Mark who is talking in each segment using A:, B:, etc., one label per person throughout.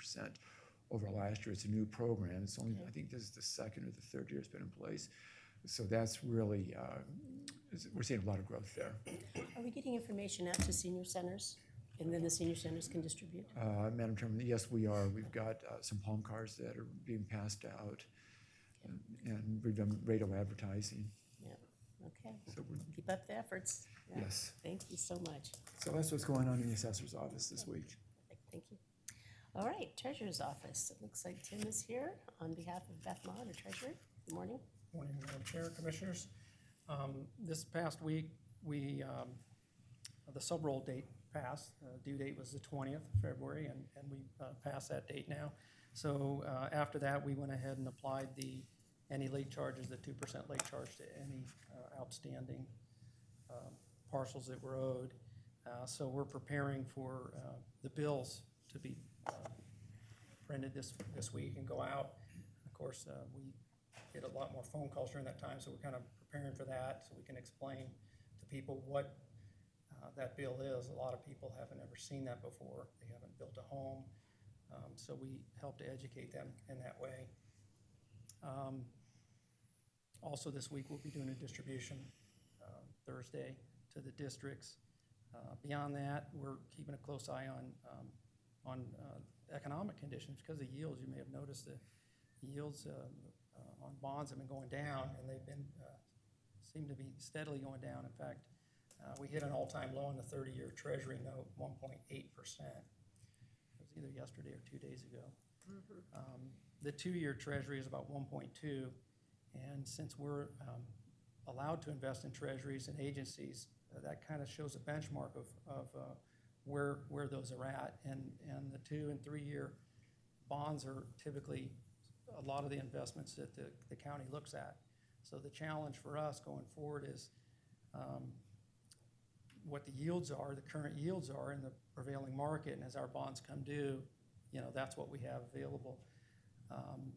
A: percent over last year. It's a new program. It's only, I think this is the second or the third year it's been in place. So that's really, uh, is- we're seeing a lot of growth there.
B: Are we getting information out to senior centers? And then the senior centers can distribute?
A: Uh, Madam Chairman, yes, we are. We've got uh, some palm cards that are being passed out. And- And we've done radio advertising,
B: Yeah, okay.
A: so we're,
B: Keep up the efforts. Yeah.
A: yes.
B: Thank you so much.
A: So that's what's going on in the assessor's office this week.
B: Thank you. All right, Treasurer's Office. It looks like Tim is here on behalf of Beth Maher, our treasurer. Good morning.
C: Morning, Madam Chair, Commissioners. Um, This past week, we, um, the sub-roll date passed. Uh, Due date was the 20th of February, and and we uh, passed that date now. So uh, after that, we went ahead and applied the, any late charges, the 2% late charge to any uh, outstanding um, parcels that were owed. Uh, So we're preparing for uh, the bills to be uh, printed this, this week and go out. Of course, uh, we get a lot more phone calls during that time, so we're kind of preparing for that, so we can explain to people what uh, that bill is. A lot of people haven't ever seen that before. They haven't built a home. Um, So we help to educate them in that way. Um, Also, this week, we'll be doing a distribution um, Thursday to the districts. Uh, Beyond that, we're keeping a close eye on, um, on uh, economic conditions because the yields. You may have noticed the yields uh, uh, on bonds have been going down, and they've been, uh, seem to be steadily going down. In fact, uh, we hit an all-time low in the 30-year Treasury note, 1.8%. It was either yesterday or two days ago. Um, The two-year Treasury is about 1.2, and since we're um, allowed to invest in treasuries and agencies, uh, that kind of shows a benchmark of, of uh, where, where those are at. And, and the two and three-year bonds are typically a lot of the investments that the, the county looks at. So the challenge for us going forward is um, what the yields are, the current yields are in the prevailing market, and as our bonds come due, you know, that's what we have available. Um,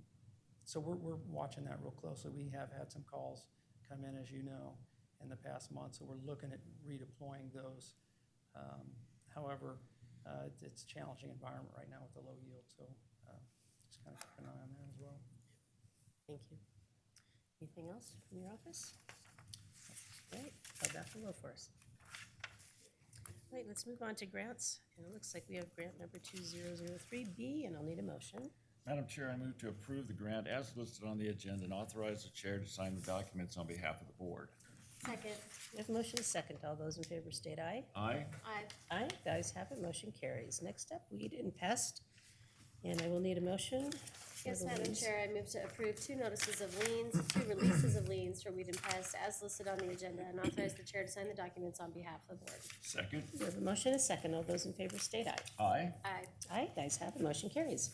C: So we're, we're watching that real closely. We have had some calls come in, as you know, in the past month, so we're looking at redeploying those. Um, However, uh, it's- it's a challenging environment right now with the low yield, so uh, just kind of keep an eye on that as well.
B: Thank you. Anything else from your office? Great, I'll back below for us. All right, let's move on to grants. And it looks like we have grant number 2003B, and I'll need a motion.
D: Madam Chair, I move to approve the grant as listed on the agenda and authorize the chair to sign the documents on behalf of the board.
E: Second.
B: We have a motion and a second. All those in favor state aye.
D: Aye.
E: Aye.
B: Aye, the ayes have it, motion carries. Next up, weed and pest, and I will need a motion. for
E: Yes,
B: the
E: Madam
B: leaves.
E: Chair, I move to approve two notices of liens, two releases of liens for weed and pest as listed on the agenda and authorize the chair to sign the documents on behalf of the board.
D: Second.
B: We have a motion and a second. All those in favor state aye.
D: Aye.
E: Aye.
B: Aye, the ayes have it, motion carries.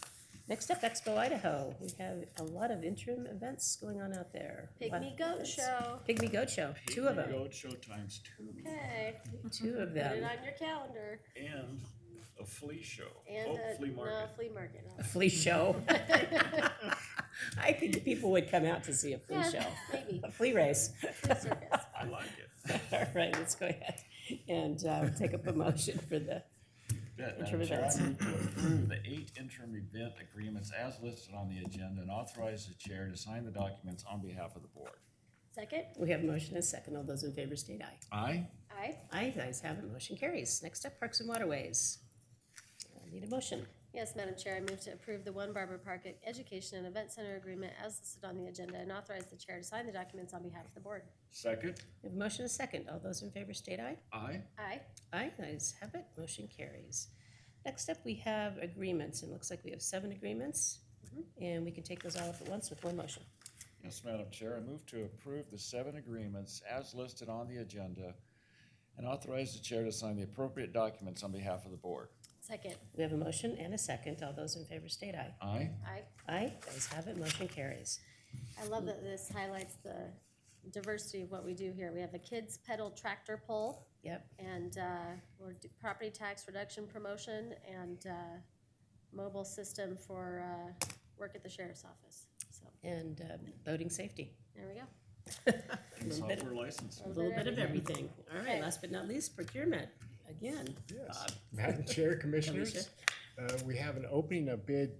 B: Next up, Expo Idaho. We have a lot of interim events going on out there. Lot of
E: Pygmy goat
B: events.
E: show.
B: Pygmy Goat Show, two of them,
D: Goat show times two
E: Okay,
B: two of
E: put it
B: them.
E: on your calendar.
D: and a flea show.
E: And
D: Oh,
E: a,
D: flea
E: no,
D: market.
E: flea market. no.
B: A flea show. I think the people would come out to see a flea
E: Yeah,
B: show,
E: Maybe,
B: a flea race.
E: Flea circus.
D: I like it.
B: All right, let's go ahead and uh, take up a motion for the
D: That-
B: Interim
D: Madam Chair, I
B: events.
D: move to approve the eight interim event agreements as listed on the agenda and authorize the chair to sign the documents on behalf of the board.
E: Second,
B: We have a motion and a second. All those in favor state aye.
D: Aye.
E: aye.
B: Aye, the ayes have it, motion carries. Next up, Parks and Waterways. I Need a motion.
E: Yes, Madam Chair, I move to approve the One Barber Park Education and Event Center Agreement as listed on the agenda and authorize the chair to sign the documents on behalf of the board.
D: Second.
B: We have a motion and a second. All those in favor state aye.
D: Aye.
E: Aye.
B: Aye, the ayes have it, motion carries. Next up, we have agreements, and it looks like we have seven agreements. And we can take those all up at once with one motion.
D: Yes, Madam Chair, I move to approve the seven agreements as listed on the agenda and authorize the chair to sign the appropriate documents on behalf of the board.
E: Second,
B: We have a motion and a second. All those in favor state aye.
D: Aye.
E: aye.
B: Aye, the ayes have it, motion carries.
E: I love that this highlights the diversity of what we do here. We have the kids pedal tractor pull
B: Yep,
E: and uh, we're do- property tax reduction promotion and uh, mobile system for uh, work at the sheriff's office. So
B: and uh, boating safety.
E: there we go.
D: And
B: Little bit-
D: software licenses.
E: A
B: A little bit of everything. All right,
E: Okay.
B: last but not least, procurement, again.
F: Yes.
B: Bob,
F: Madam Chair,
B: Alicia.
F: Commissioners, Uh, We have an opening of bid